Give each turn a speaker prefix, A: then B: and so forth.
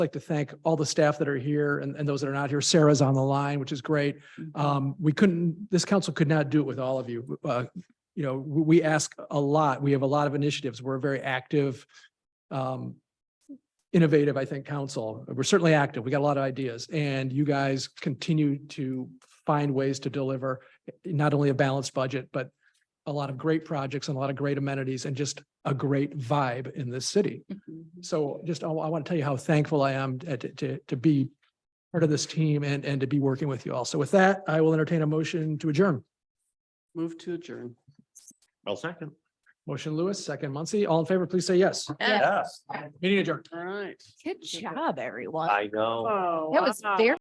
A: like to thank all the staff that are here and, and those that are not here. Sarah's on the line, which is great. Um, we couldn't, this council could not do it with all of you. Uh, you know, we, we ask a lot. We have a lot of initiatives. We're a very active, um, innovative, I think, council. We're certainly active. We got a lot of ideas and you guys continue to find ways to deliver not only a balanced budget, but a lot of great projects and a lot of great amenities and just a great vibe in this city.
B: Mm-hmm.
A: So just, I want to tell you how thankful I am uh, to, to, to be part of this team and, and to be working with you all. So with that, I will entertain a motion to adjourn.
B: Move to adjourn.
C: I'll second.
A: Motion Lewis, second Muncy. All in favor, please say yes.
C: Yes.
A: Meeting adjourned.
B: All right.
D: Good job, everyone.
C: I know.
B: Oh.
D: That was very.